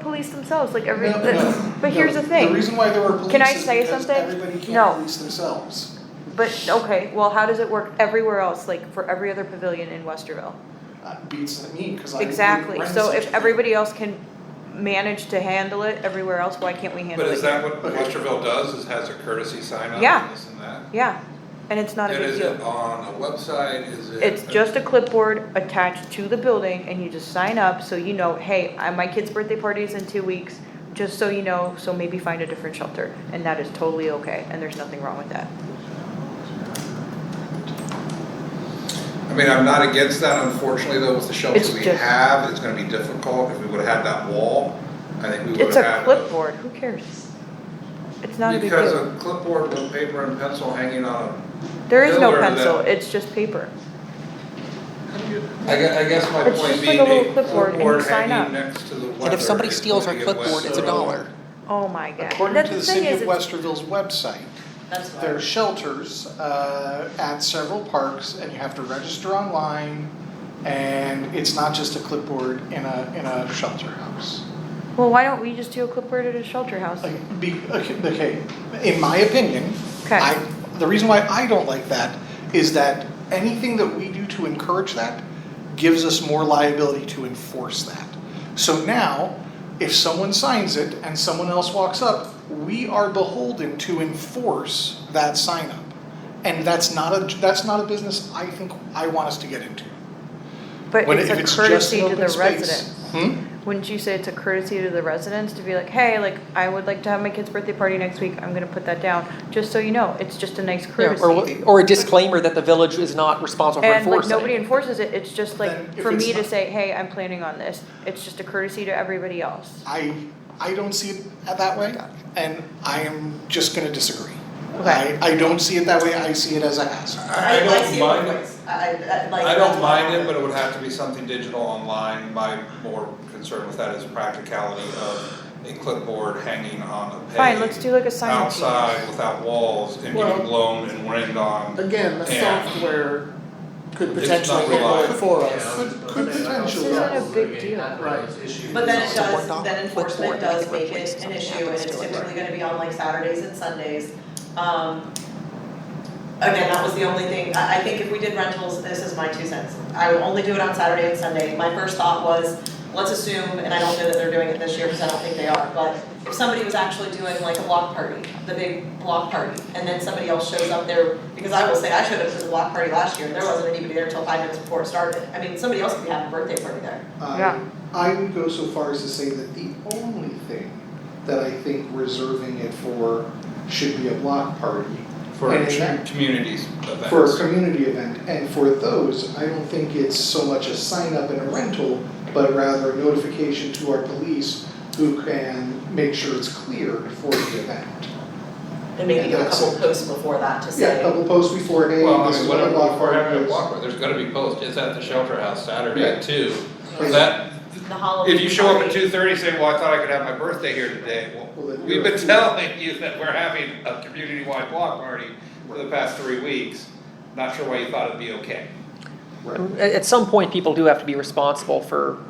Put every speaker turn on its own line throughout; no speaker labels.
police themselves, like every,
No,
that's-
no,
but here's
no.
the thing.
The reason why there are police
Can I
is
say
because
something?
everybody
No.
can't police themselves.
But, okay, well, how does it work everywhere else, like for every other pavilion in Westerville?
Uh, Beats me, cause I.
Exactly,
wouldn't
so if
rent such a thing.
everybody else can manage to handle it everywhere else, why can't we handle
But
it?
is that what
Okay.
Westerville does, is has a courtesy sign up
Yeah.
and this and that?
Yeah, and it's not a
And
big
is it
deal.
on a website, is it?
It's just a clipboard attached to the building and you just sign up so you know, hey, I- my kid's birthday party is in two weeks, just so you know, so maybe find a different shelter. And that is totally okay, and there's nothing wrong with that.
I mean, I'm not against that, unfortunately, though, with the
It's
shelter we
just-
have, it's gonna be difficult, if we would've had that wall, I think we would've
It's
had.
a clipboard, who cares? It's not a big
Because
deal.
a clipboard with paper and pencil hanging on a
There is no
Miller that-
pencil, it's just paper.
I guess, I guess my
It's
point
just like
being,
a little
a
clipboard and you
clipboard
sign up.
hanging next to the weather.
And if somebody
is
steals our
going to get
clipboard, it's a
wet.
dollar.
Oh my god.
According
That's
to the
thing
city
is
of
it's-
Westerville's website,
That's why.
there are shelters uh at several parks and you have to register online. And it's not just a clipboard in a in a shelter house.
Well, why don't we just do a clipboard at a shelter house?
Like, be, okay, okay, in my opinion,
Okay.
I, the reason why I don't like that is that anything that we do to encourage that gives us more liability to enforce that. So now, if someone signs it and someone else walks up, we are beholden to enforce that sign up. And that's not a, that's not a business I think I want us to get into.
But
When-
it's
if
a
just
courtesy
an
to
open
the
space-
residents.
Hmm?
Wouldn't you say it's a courtesy to the residents to be like, hey, like, I would like to have my kid's birthday party next week, I'm gonna put that down, just so you know, it's just a nice courtesy.
Or, or a disclaimer that the village is not responsible for
And like,
enforcing.
nobody enforces it, it's just
Then
like,
if
for
it's
me to
not-
say, hey, I'm planning on this, it's just a courtesy to everybody else.
I I don't see it that way, and I am just going to disagree.
Okay.
I, I don't see it that way. I see it as a hassle.
I, I don't
see both
mind, it.
ways. I, I, like.
I don't mind it, but it would have to be something digital online, my more concern with that is practicality of a clipboard hanging on a peg.
Fine, let's do like a sign up.
Outside without walls and
Well-
getting blown and rained on,
Again, the
Yeah.
software could
It's
potentially
not
handle
reliable.
it for
Yeah,
us.
Could-
but
could
then I
potentially-
also
This isn't a big
agree that
deal.
those issues-
But then it
So we're
does,
not
then
clipboard,
enforcement
we
does
can
make
replace
it an
something
issue and
happens
it's
to it.
typically gonna be on like Saturdays and Sundays. Um, Again, that was the only thing, I, I think if we did rentals, this is my two cents. I would only do it on Saturday and Sunday. My first thought was, let's assume, and I don't know that they're doing it this year because I don't think they are, but if somebody was actually doing like a block party, the big block party, and then somebody else shows up there, because I will say, I showed up to the block party last year and there wasn't anybody there until five minutes before it started. I mean, somebody else could be having a birthday party there.
Yeah.
Um, I would go so far as to say that the only thing that I think reserving it for should be a block party
for
And
two
that-
communities events.
for a community event. And for those, I don't think it's so much a sign up and a rental, but rather a notification to our police who can make sure it's cleared for the event.
And maybe a
That's
couple
it.
posts before that to
Yeah,
say.
a couple posts before, hey,
Well, I
this
mean,
is what
whatever,
a block
if we're
party
having a
is.
block, party, there's gonna be posts, it's at the shelter house Saturday
Right.
at two.
Right.
That,
The Halloween.
if you show up at
party.
two thirty saying, well, I thought I could have my birthday here today, well,
Well, then
We've
you're-
been telling you that we're having a community-wide block party for the past three weeks. Not sure why you thought it'd be okay.
Right.
At, at some point, people do have to be responsible for,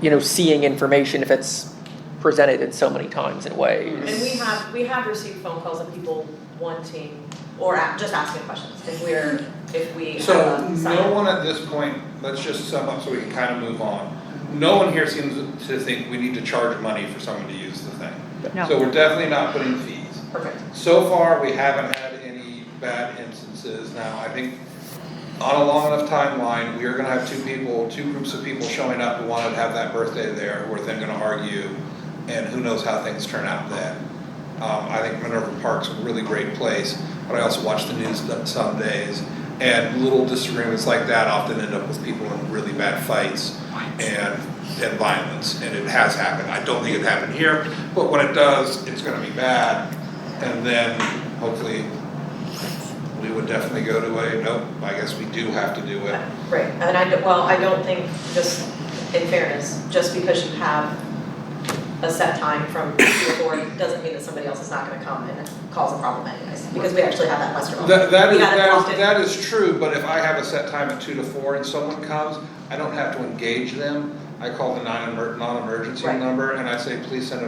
you know, seeing information if it's presented in so many times and
And
ways.
we have, we have received phone calls of people wanting, or a- just asking questions, if we're, if we have
So
a sign.
no one at this point, let's just sum up so we can kind of move on. No one here seems to think we need to charge money for someone to use the thing.
No.
So we're definitely not putting fees.
Perfect.
So far, we haven't had any bad instances. Now, I think on a long enough timeline, we are gonna have two people, two groups of people showing up who wanted to have that birthday there, who are then gonna argue, and who knows how things turn out then. Um, I think Minerva Park's a really great place, but I also watch the news some days, and little disagreements like that often end up with people in really bad fights and, and violence, and it has happened. I don't think it happened here, but when it does, it's gonna be bad, and then hopefully, we would definitely go to a, nope, I guess we do have to do it.
Right, and I, don't- well, I don't think, just in fairness, just because you have a set time from two to four, doesn't mean that somebody else is not gonna come and cause a problem anyways, because we actually have that muster.
That, that
We
is,
had it
that
blocked
is,
in.
that is true, but if I have a set time at two to four and someone comes, I don't have to engage them. I call the non-emer, non-emergency
Right.
number, and I say, please send a